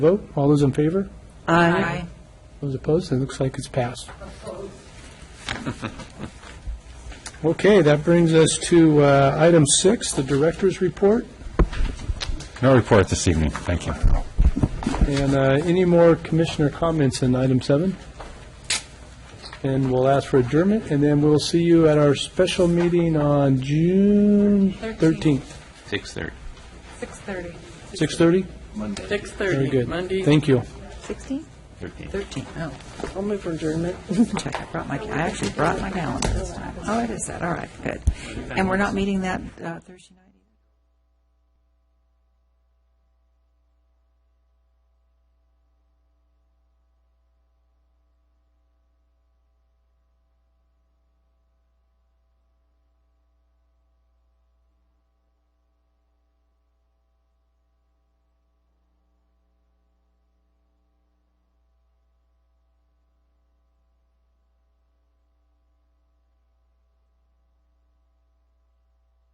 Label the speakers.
Speaker 1: Vote, all those in favor?
Speaker 2: Aye.
Speaker 1: Those opposed, it looks like it's passed. Okay, that brings us to uh, item six, the director's report.
Speaker 3: No report this evening, thank you.
Speaker 1: And uh, any more commissioner comments in item seven? And we'll ask for adjournment, and then we'll see you at our special meeting on June 13th.
Speaker 4: 6:30.
Speaker 2: 6:30.
Speaker 1: 6:30?
Speaker 2: 6:30.
Speaker 1: Very good.
Speaker 2: Monday.
Speaker 1: Thank you.
Speaker 5: 16?
Speaker 4: 13.
Speaker 5: 13, oh. I'll move for adjournment. Check, I brought my, I actually brought my calendar this time. Oh, it is that, all right, good. And we're not meeting that uh, Thursday night?